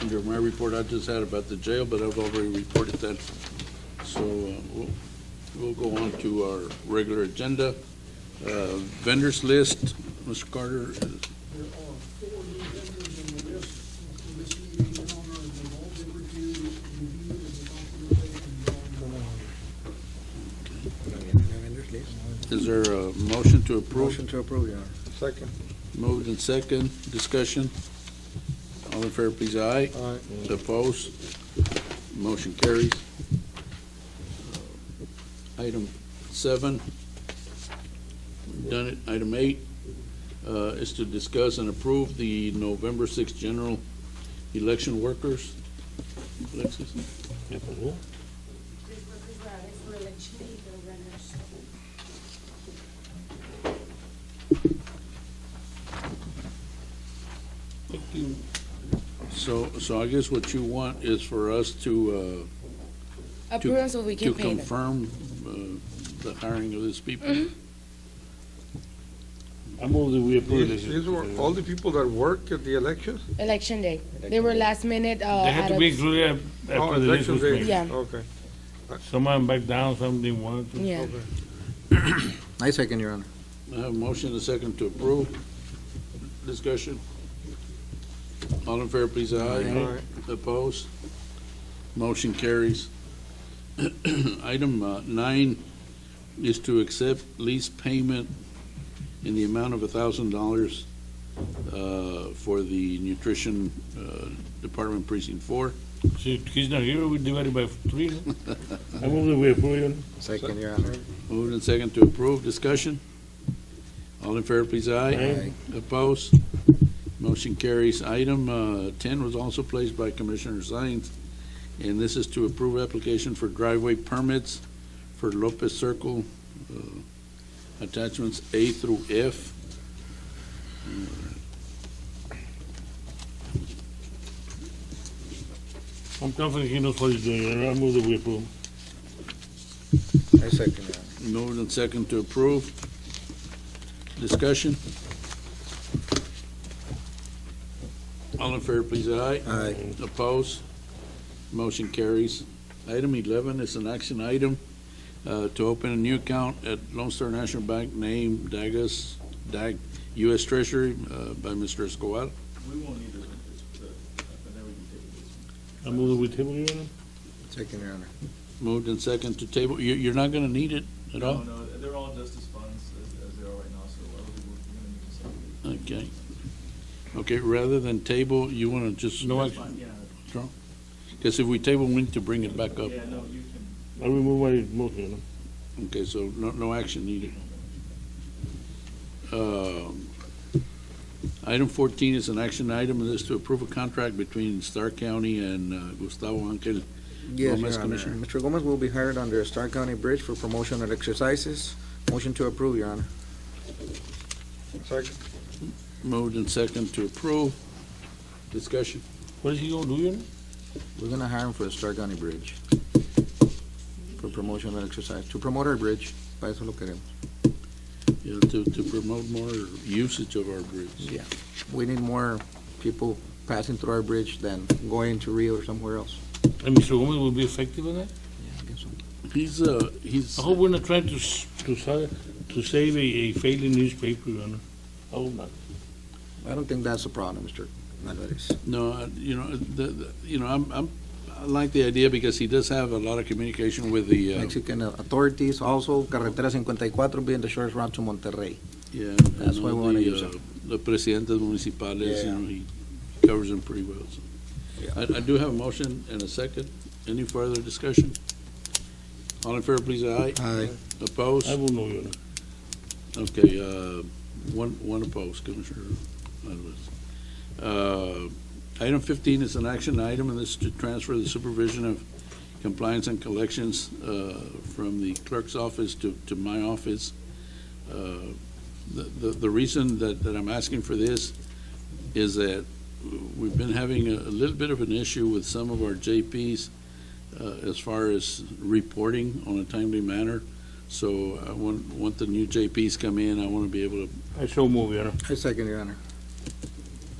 under my report I just had about the jail, but I've already reported that. So uh, we'll, we'll go on to our regular agenda. Uh, Vendors list, Mr. Carter, There are four new vendors on the list for this meeting, Your Honor, and they've all been reviewed, reviewed, and the documentation is all in order. Vendors list. is there a motion to approve? Motion to approve, Your Honor. Second. Moved and second, discussion. All in fair, please, aye. Aye. Opposed? Motion carries. Uh, Item seven, we've done it. Item eight uh, is to discuss and approve the November 6th general election workers. Alexis? These workers are out for election day, they're runners. So, so I guess what you want is for us to, uh, to- Approve so we can pay To them. confirm uh, the hiring of these people. I move that we approve this. These these were all the people that work at the elections? Election day. They were last minute, uh. They had out to of- be included af- Oh, after the list election was day. made. Yeah. Okay. Some of them backed down, some didn't want to. Yeah. Okay. I second, Your Honor. I have a motion and a second to approve. Discussion. All in fair, please, aye. Aye. Opposed? Motion carries. Item uh, nine is to accept lease payment in the amount of $1,000 uh, for the nutrition uh, department precinct four. See, he's not here, we divide it by three. no? I move that we approve, Your Honor. Second, Your Honor. Moved and second to approve, discussion. All in fair, please, aye. Aye. Opposed? Motion carries. Item uh, 10 was also placed by Commissioner Sines, and this is to approve application for driveway permits for Lopez Circle, uh, attachments A through F. I'm confident he knows what he's doing, Your Honor. I move that we approve. I second, Your Honor. Moved and second to approve, discussion. All in fair, please, aye. Aye. Opposed? Motion carries. Item 11 is an action item uh, to open a new account at Lone Star National Bank named Dagus, Dag, U.S. Treasury uh, by Mr. Escobar. We won't need this one, this, the, but then we can take this one. I move that we table, Your Honor. Second, Your Honor. Moved and second to table. You- You're not going to need it at all? No, no, they're all justice funds as, as they are right now, so I would, we're gonna need this. Okay. Okay, rather than table, you want to just? No action. Fine, yeah, Because if we table, we need to bring it back up. yeah, no, you can, I remove my motion, Your Honor. Okay, so no, no action needed. Um, Item fourteen is an action item, and this is to approve a contract between Star County and uh, Gustavo Angel. Yes, Gomez, Your Honor. Commissioner. Mr. Gomez will be hired under Star County Bridge for promotional exercises. Motion to approve, Your Honor. Second. Moved and second to approve. Discussion. What is he gonna do, Your Honor? We're gonna hire him for the Star County Bridge. For promotional exercise, to promote our bridge. Para eso lo queremos. You know, to, to promote more usage of our bridge. Yeah. We need more people passing through our bridge than going to Rio or somewhere else. And Mr. Gomez will be effective in that? Yeah, I guess so. He's, uh, he's, I hope we're not trying to, s- to, sa- to save a, a failing newspaper, Your Honor. I hope not. I don't think that's a problem, Mr. Alvarez. no, uh, you know, the, the- you know, I'm, I'm, I like the idea because he does have a lot of communication with the, uh, Mexican authorities, also Carretera 54 being the shortest route to Monterrey. yeah. That's and why we all wanna the, use uh, him. The presidentes municipales, you Yeah. know, he covers them pretty well, so. Yeah. I, I do have a motion and a second. Any further discussion? All in favor, please, aye. Aye. Opposed? I will know, Your Honor. Okay, uh, one, one opposed, Commissioner Alvarez. Uh, Item 15 is an action item, and this is to transfer the supervision of compliance and collections uh, from the clerk's office to, to my office. Uh, The, the the reason that, that I'm asking for this is that we've been having a a little bit of an issue with some of our JPs uh, as far as reporting on a timely manner. So I want, want the new JPs come in, I want to be able to, I shall move, Your Honor. I second, Your Honor.